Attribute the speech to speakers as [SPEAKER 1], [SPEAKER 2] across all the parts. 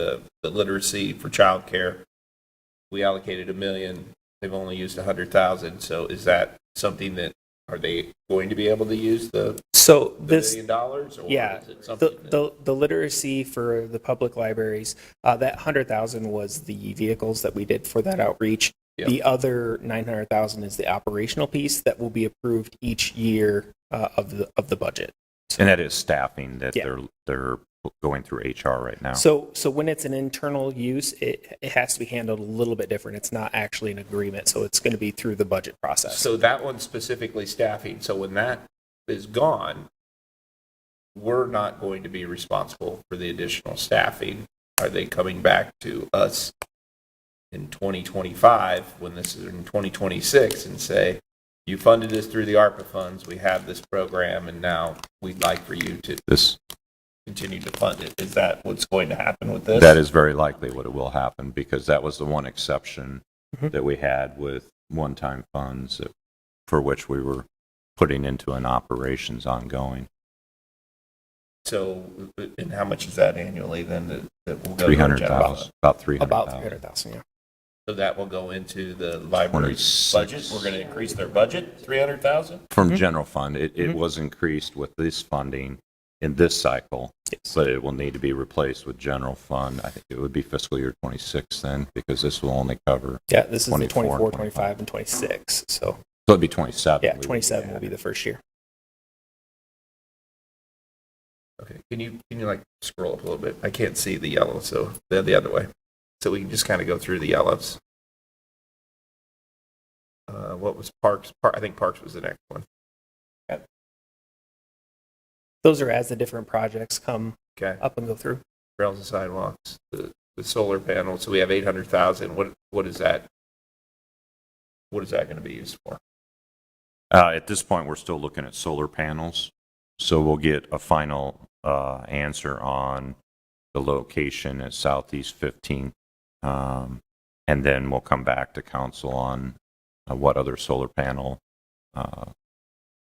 [SPEAKER 1] the, the literacy for childcare. We allocated a million, they've only used a hundred thousand, so is that something that, are they going to be able to use the
[SPEAKER 2] So
[SPEAKER 1] the
[SPEAKER 2] this,
[SPEAKER 1] million dollars? or
[SPEAKER 2] yeah,
[SPEAKER 1] is it
[SPEAKER 2] the,
[SPEAKER 1] something that-
[SPEAKER 2] the, the literacy for the public libraries, uh, that hundred thousand was the vehicles that we did for that outreach.
[SPEAKER 1] Yeah.
[SPEAKER 2] The other nine hundred thousand is the operational piece that will be approved each year, uh, of the, of the budget.
[SPEAKER 3] And that is staffing that
[SPEAKER 2] Yeah.
[SPEAKER 3] they're, they're going through HR right now.
[SPEAKER 2] So, so when it's an internal use, it, it has to be handled a little bit different. It's not actually an agreement, so it's going to be through the budget process.
[SPEAKER 1] So that one's specifically staffing, so when that is gone, we're not going to be responsible for the additional staffing. Are they coming back to us in 2025, when this is in 2026, and say, you funded this through the ARPA funds, we have this program, and now we'd like for you to
[SPEAKER 3] This,
[SPEAKER 1] continue to fund it? Is that what's going to happen with this?
[SPEAKER 3] that is very likely what it will happen because that was the one exception
[SPEAKER 2] Mm-hmm.
[SPEAKER 3] that we had with one-time funds that- for which we were putting into an operations ongoing.
[SPEAKER 1] So, and how much is that annually then that- that will go to our general
[SPEAKER 3] 300,000, about
[SPEAKER 2] About three
[SPEAKER 3] 300,000.
[SPEAKER 2] hundred thousand, yeah.
[SPEAKER 1] So that will go into the library's
[SPEAKER 3] 26.
[SPEAKER 1] budget? We're going to increase their budget, 300,000?
[SPEAKER 2] Mm-hmm.
[SPEAKER 3] From general fund, it, it was increased with this funding in this cycle, but it will need to be replaced with general fund. I think it would be fiscal year 26 then because this will only cover,
[SPEAKER 2] Yeah, this is the
[SPEAKER 3] 24,
[SPEAKER 2] twenty-four, twenty-five, and twenty-six, so,
[SPEAKER 3] so it'd be 27.
[SPEAKER 2] yeah,
[SPEAKER 3] we would
[SPEAKER 2] twenty-seven will
[SPEAKER 3] adding.
[SPEAKER 2] be the first year.
[SPEAKER 1] Okay, can you, can you like scroll up a little bit? I can't see the yellow, so the, the other way. So we can just kind of go through the yellows. Uh, what was Parks? Par- I think Parks was the next one.
[SPEAKER 2] Those are as the different projects come
[SPEAKER 1] Okay.
[SPEAKER 2] up and go through.
[SPEAKER 1] Trails and sidewalks, the, the solar panel. So we have 800,000. What, what is that? What is that going to be used for?
[SPEAKER 3] Uh, At this point, we're still looking at solar panels, so we'll get a final uh, answer on the location at Southeast 15. um, And then we'll come back to council on uh, what other solar panel uh,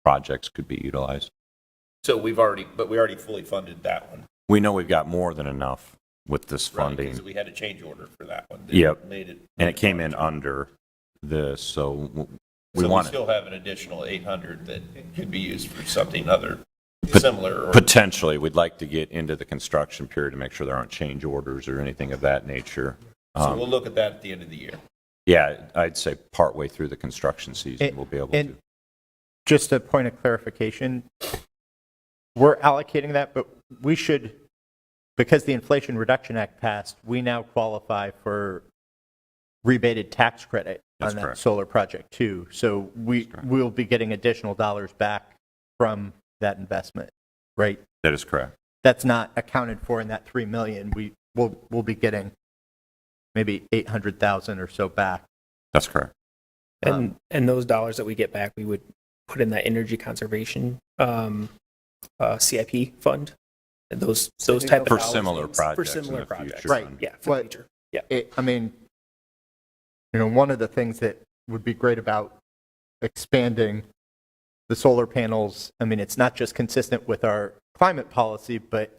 [SPEAKER 3] projects could be utilized.
[SPEAKER 1] So we've already, but we already fully funded that one.
[SPEAKER 3] We know we've got more than enough with this
[SPEAKER 1] right? 'Cause
[SPEAKER 3] funding,
[SPEAKER 1] We had a change order for that one. that
[SPEAKER 3] Yep.
[SPEAKER 1] Made it.
[SPEAKER 3] and it came in under this, so w- we
[SPEAKER 1] So we
[SPEAKER 3] want to
[SPEAKER 1] still have an additional 800 that could be used for something other, similar, or
[SPEAKER 3] Potentially, we'd like to get into the construction period to make sure there aren't change orders or anything of that nature.
[SPEAKER 1] so
[SPEAKER 3] Um,
[SPEAKER 1] we'll look at that at the end of the year.
[SPEAKER 3] Yeah, I'd say partway through the construction season, we'll be able
[SPEAKER 4] And
[SPEAKER 3] to.
[SPEAKER 4] just a point of clarification, we're allocating that, but we should, because the Inflation Reduction Act passed, we now qualify for rebated tax credit
[SPEAKER 3] That's
[SPEAKER 4] on that
[SPEAKER 3] correct.
[SPEAKER 4] solar project too. So we, we'll be getting additional dollars back from that investment, right?
[SPEAKER 3] That is correct.
[SPEAKER 4] That's not accounted for in that 3 million. We, we'll, we'll be getting maybe 800,000 or so back.
[SPEAKER 3] That's correct. Um,
[SPEAKER 2] And, and those dollars that we get back, we would put in that energy conservation, um, uh, CIP fund. And those, those type of.
[SPEAKER 3] For
[SPEAKER 2] dollars-
[SPEAKER 3] similar
[SPEAKER 2] For
[SPEAKER 3] projects in
[SPEAKER 2] similar
[SPEAKER 3] the
[SPEAKER 2] projects.
[SPEAKER 3] future.
[SPEAKER 4] Right.
[SPEAKER 2] Yeah, for the
[SPEAKER 4] What-
[SPEAKER 2] future. Yeah.
[SPEAKER 4] it, I mean, you know, one of the things that would be great about expanding the solar panels, I mean, it's not just consistent with our climate policy, but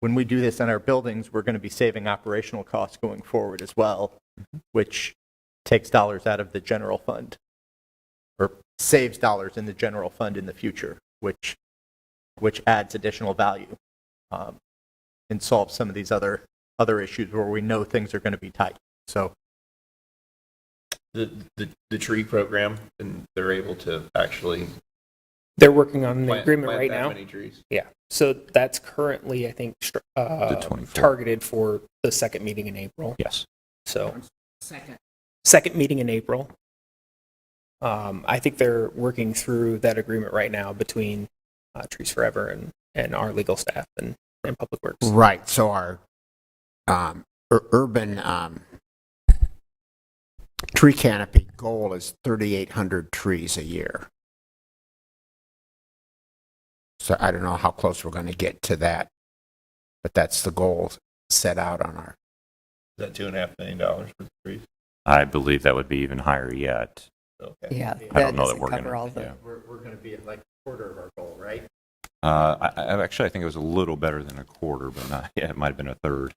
[SPEAKER 4] when we do this on our buildings, we're going to be saving operational costs going forward as well, which takes dollars out of the general fund or saves dollars in the general fund in the future, which, which adds additional value um, and solves some of these other other issues where we know things are going to be tight. So
[SPEAKER 1] The, the, the tree program, and they're able to actually
[SPEAKER 2] They're working on an
[SPEAKER 1] plant,
[SPEAKER 2] agreement
[SPEAKER 1] plant
[SPEAKER 2] right
[SPEAKER 1] that
[SPEAKER 2] now.
[SPEAKER 1] many trees.
[SPEAKER 2] Yeah. So that's currently, I think, str- uh,
[SPEAKER 3] 24.
[SPEAKER 2] targeted for the second meeting in April.
[SPEAKER 3] Yes.
[SPEAKER 2] So. Second. meeting in April. Um, I think they're working through that agreement right now between uh, Trees Forever and, and our legal staff and, and Public Works.
[SPEAKER 5] Right. So our um, ur- urban um, tree canopy goal is 3,800 trees a year. So I don't know how close we're going to get to that, but that's the goal set out on our.
[SPEAKER 1] Is that two and a half million dollars for the trees?
[SPEAKER 3] I believe that would be even higher yet.
[SPEAKER 1] Okay.
[SPEAKER 6] Yeah.
[SPEAKER 3] I don't know that
[SPEAKER 6] doesn't
[SPEAKER 3] we're going
[SPEAKER 6] cover all the-
[SPEAKER 3] to.
[SPEAKER 4] we're, we're going to be at like a quarter of our goal, right?
[SPEAKER 3] Uh, Actually, I think it was a little better than a quarter, but not, yeah, it might have been a third.